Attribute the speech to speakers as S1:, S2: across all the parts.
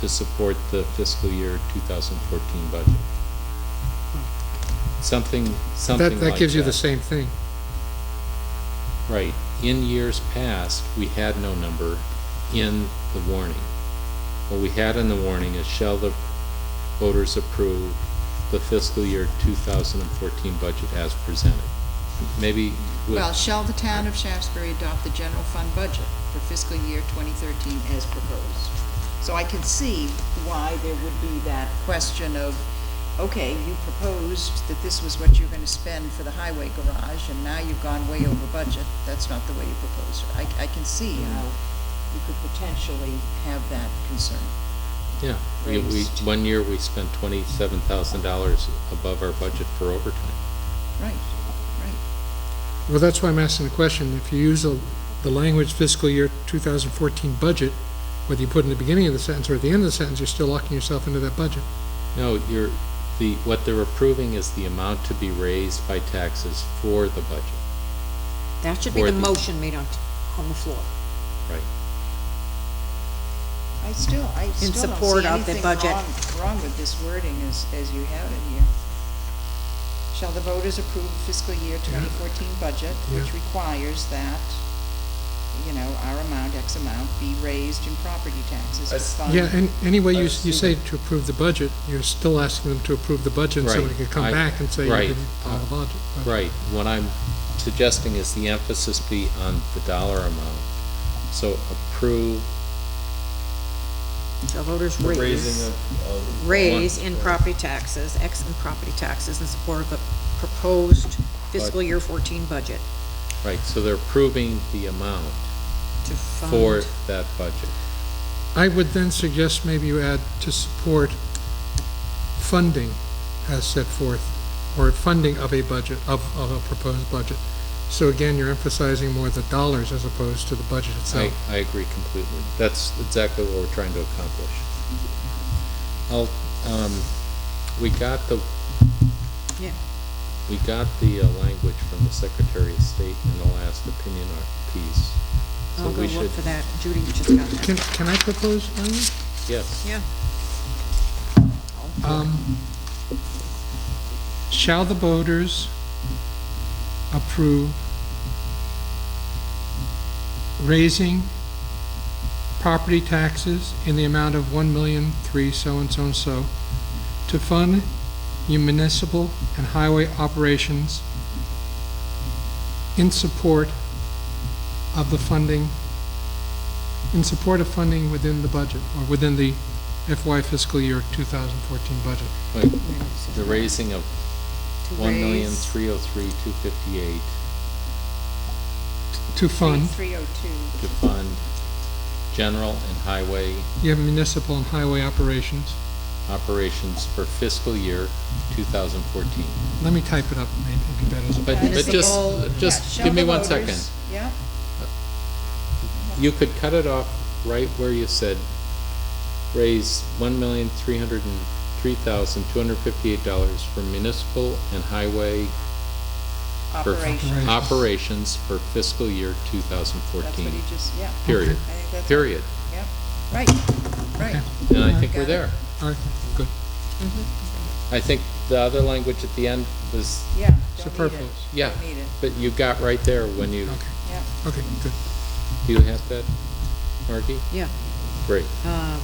S1: to support the fiscal year 2014 budget. Something, something
S2: That,
S1: like
S2: that gives you the same thing.
S1: Right. In years past, we had no number in the warning. What we had in the warning is shall the voters approve the fiscal year 2014 budget as presented? Maybe with,
S3: Well, shall the town of Shaftesbury adopt the general fund budget for fiscal year 2013 as proposed? So I can see why there would be that question of, okay, you proposed that this was what you're going to spend for the highway garage, and now you've gone way over budget. That's not the way you proposed it. I, I can see how you could potentially have that concern.
S1: yeah. We, we,
S3: raised.
S1: one year, we spent $27,000 above our budget for overtime.
S3: Right, right.
S2: Well, that's why I'm asking the question, if you use the, the language fiscal year 2014 budget, whether you put in the beginning of the sentence or at the end of the sentence, you're still locking yourself into that budget.
S1: No, you're, the, what they're approving is the amount to be raised by taxes for the budget.
S4: That should be
S1: Or
S4: the
S1: the-
S4: motion made on, on the floor.
S3: I still, I still don't
S4: support
S3: see
S4: of the
S3: anything
S4: budget.
S3: wrong, wrong with this wording as, as you have it here. Shall the voters approve fiscal year twenty fourteen budget, which requires that, you know, our amount, X amount, be raised in property taxes to
S1: That's-
S3: fund.
S2: Yeah, and any way you,
S1: I
S2: you
S1: see
S2: say to approve the budget, you're still asking them to approve the budget, and somebody
S1: Right,
S2: could come
S1: I-
S2: back and say you
S1: right,
S2: didn't follow
S1: uh,
S2: the budget. but-
S1: Right, what I'm suggesting is the emphasis be on the dollar amount. So approve,
S4: So voters raise, raise in property taxes, X in property taxes in support of the proposed fiscal year fourteen budget
S1: right, so they're approving the amount
S4: to
S1: for
S4: fund.
S1: that budget.
S2: I would then suggest maybe you add to support funding as set forth, or funding of a budget, of, of a proposed budget. So again, you're emphasizing more the dollars as opposed to the budget
S1: I,
S2: itself.
S1: I agree completely. That's exactly what we're trying to accomplish. I'll, um, we got the,
S4: Yeah.
S1: we got the uh, language from the Secretary of State in the last opinion art piece. So
S4: I'll go
S1: we should-
S4: look for that. Judy just got that.
S2: Can, can I propose language?
S1: Yes.
S4: Yeah.
S2: Um, shall the voters approve raising property taxes in the amount of one million, three, so and so and so, to fund your municipal and highway operations in support of the funding, in support of funding within the budget, or within the FY fiscal year 2014 budget.
S1: Like,
S4: Wait a second.
S1: the raising of
S4: To
S1: one million,
S4: raise-
S1: three oh three, two fifty-eight
S2: To fund
S3: Three oh two,
S1: to fund general and highway
S2: your municipal and highway operations.
S1: operations for fiscal year two thousand fourteen.
S2: Let me type it up, maybe it'd be better. as a-
S1: But, but
S3: Municipal,
S1: just,
S3: yeah,
S1: just
S3: shall
S1: give me
S3: the
S1: one
S3: voters-
S1: second.
S3: Yeah,
S1: You could cut it off right where you said, raise one million, three hundred and three thousand, two hundred and fifty-eight dollars for municipal and highway for
S3: operation,
S1: operations for fiscal year two thousand
S3: that's what
S1: fourteen,
S3: he just, yeah,
S1: period,
S3: I think that's,
S1: period.
S3: yeah, right, right.
S1: And I think we're
S3: Got it.
S1: there.
S2: All right, good,
S1: I think the other language at the end was,
S3: Yeah, don't need it.
S2: superfluous,
S1: yeah,
S3: Don't need it,
S1: but you got right there when you,
S2: okay,
S3: yeah.
S2: okay, good.
S1: do you have that, Margie?
S4: Yeah.
S1: Great.
S4: Um,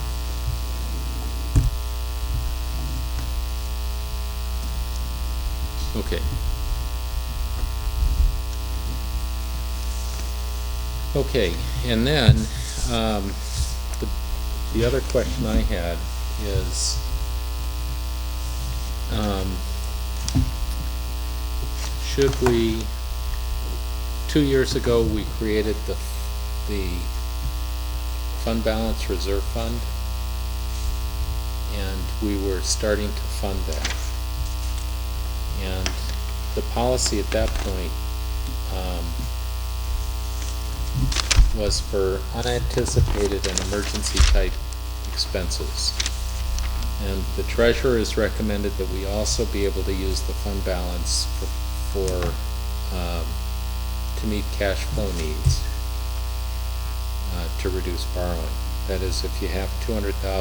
S1: Okay. Okay, and then, um, the, the other question I had is, um, should we, two years ago, we created the, the fund balance reserve fund, and we were starting to fund that. And the policy at that point, um, was for unanticipated and emergency type expenses. And the treasurer has recommended that we also be able to use the fund balance for, for, um, to meet cash flow needs, uh, to reduce borrowing. That is, if you have two hundred thousand